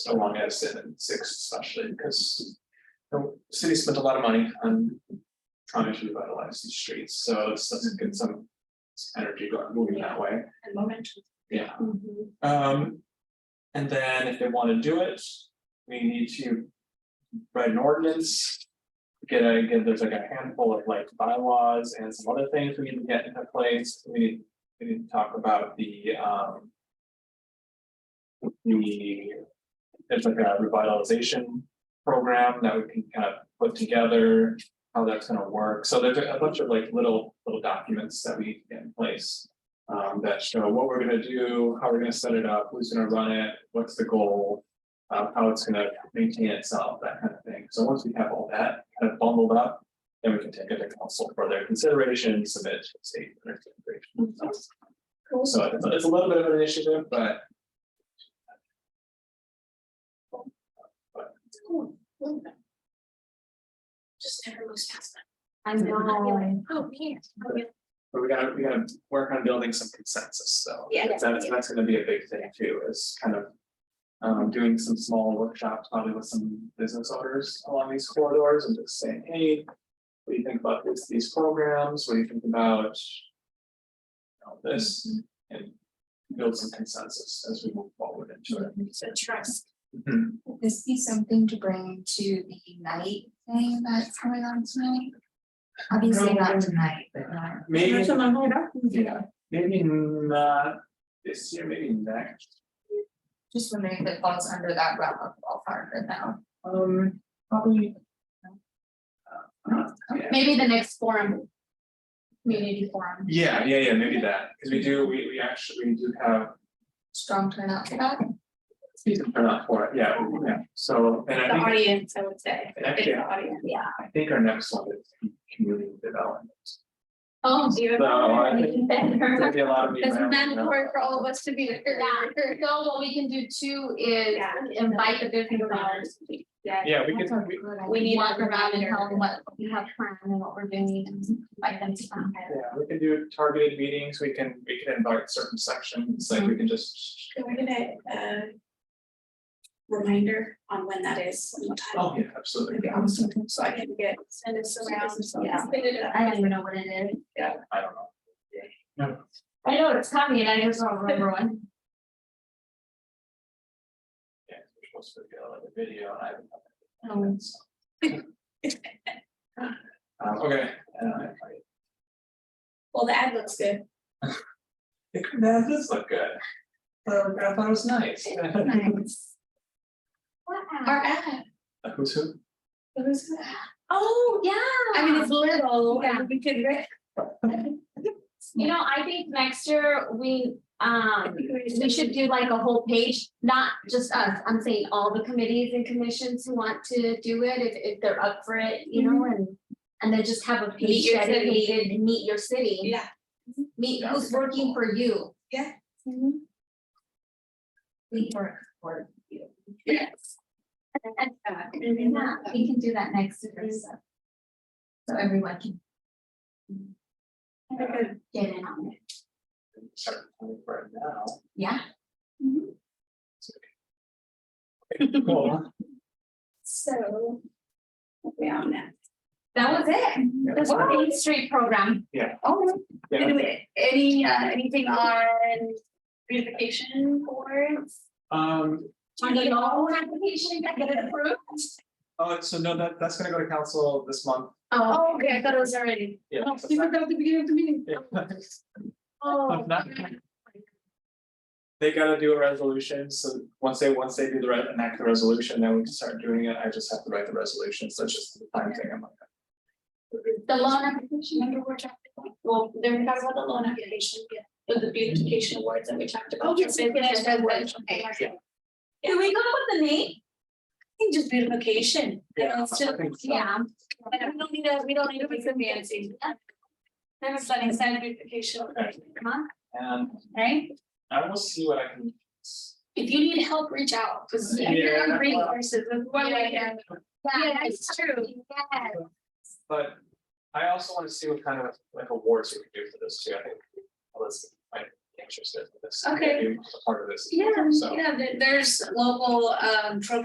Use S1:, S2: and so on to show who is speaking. S1: so long as seven, six especially, because the city spent a lot of money on trying to revitalize these streets, so let's, let's get some some energy going, moving that way,
S2: and momentum.
S1: yeah.
S2: Mm-hmm.
S1: Um, and then if they wanna do it, we need to write an ordinance. Get a, get, there's like a handful of like bylaws and some other things we need to get into place, we need, we need to talk about the, um. The, there's like a revitalization program that we can kind of put together, how that's gonna work, so there's a bunch of like little, little documents that we get in place. Um, that show what we're gonna do, how we're gonna set it up, who's gonna run it, what's the goal. uh, how it's gonna maintain itself, that kind of thing, so once we have all that kind of bundled up. Then we can take it to council for their consideration, submit to the state. for their consideration.
S2: Cool.
S1: So it's it's a little bit of an initiative, but
S2: Cool. Love that. Just never moves fast
S3: I
S2: enough.
S3: know.
S2: Oh, yeah. Oh, yeah.
S1: But we gotta, we gotta work on building some consensus, though.
S2: Yeah.
S1: That's, that's gonna be a big thing too, is kind of. Um, doing some small workshops, probably with some business owners along these corridors and just saying, hey. What do you think about this, these programs? What do you think about? you know, this and build some consensus as we move forward into it.
S2: So trust.
S1: Mhm.
S3: Would This be something to bring to the night thing that's going on tonight? Obviously not tonight, but not.
S1: Maybe,
S2: I'm holding up.
S1: yeah, maybe not this year, maybe next.
S3: Just wondering if it falls under that realm of ballpark or no.
S1: Um, probably. Uh, yeah.
S3: Maybe the next forum. Community forum,
S1: Yeah, yeah, yeah, maybe that, because we do, we we actually, we do have
S3: strong turnout for that.
S1: decent turnout for it, yeah, yeah, so, and
S2: The
S1: I think,
S2: audience, I would say,
S1: and actually,
S2: big audience.
S3: Yeah.
S1: I think our next one is community development.
S3: Oh,
S2: Do you
S1: So, I
S2: have-
S1: think- There'll be a lot of.
S3: That's
S1: around, you know.
S3: mandatory for all of us to be there.
S2: Yeah.
S3: So what we can do too is
S2: Yeah.
S3: invite the business owners.
S2: Yeah.
S1: Yeah, we could, we,
S3: We need to come around and tell them what we have planned and what we're doing and invite them to come.
S1: yeah, we can do targeted meetings, we can, we can invite certain sections, like we can just.
S2: Can we get a, uh, reminder on when that is, and what time?
S1: Oh, yeah, absolutely.
S2: Maybe I'll send it, So I can get, send us around, yeah.
S3: I don't even know what it is.
S1: Yeah, I don't know.
S3: I know it's coming and I just don't remember when.
S1: Yeah, we're supposed to get like a video, and I haven't.
S3: Um,
S2: Oh.
S1: Um, okay, and I, I
S2: Well, the ad looks good.
S1: It that does look good. So I thought it was nice.
S3: nice. Our ad.
S1: Who's who?
S2: Who's that? Oh, yeah.
S3: I mean, it's little.
S2: Yeah, we could, I
S3: You know, I think next year we, um,
S2: think we
S3: we should do like a whole page, not just us. I'm saying all the committees and commissions who want to do it, if, if they're up for it, you know, and. And then just have a
S2: Mm-hmm. Meet
S3: page
S2: your city.
S3: dedicated, meet your city,
S2: Yeah,
S3: meet
S1: Yeah.
S3: who's working for you.
S2: Yeah.
S3: We work for you.
S2: yes.
S3: Yeah, we can do that next year, so. So everyone can get in on it,
S1: Start planning for it now.
S3: yeah?
S1: Cool.
S2: So. We are now.
S3: That was it,
S1: Yeah,
S3: that's the Main Street program.
S2: Oh,
S1: yeah.
S2: any, uh, anything on beautification boards?
S1: Um,
S3: On the loan application, I get it approved?
S1: oh, so no, that that's gonna go to council this month.
S3: Oh,
S2: Oh, okay, I thought it was already.
S1: Yeah.
S2: Oh, You forgot at the beginning of the meeting.
S1: Yeah.
S2: Oh.
S1: Of that. They gotta do a resolution, so once they, once they do the re- enact the resolution, then we can start doing it. I just have to write the resolution, so it's just the time thing. I'm like,
S3: The loan application,
S2: Remember we're talking about, well, then we talked about the loan application, yeah, but the beautification awards that we talked about.
S3: Oh, yes, yes, yes, yes, yes, okay.
S2: Can we go with the name? I think just beautification.
S1: Yeah,
S2: It's just-
S1: I think so.
S3: yeah,
S2: Like, we don't need to, we don't need to be so fancy. Never said inside beautification,
S3: come on,
S1: And
S2: right?
S1: I will see what I can.
S2: If you need help, reach out, because
S1: Yeah.
S2: you're on resources, that's why I am.
S3: yeah,
S2: Yeah, it's true.
S3: yeah.
S1: But I also wanna see what kind of like awards we can do for this too, I think. Well, this might interested in this.
S2: Okay.
S1: maybe a Part of this.
S2: Yeah,
S1: So-
S2: yeah, there- there's local um programs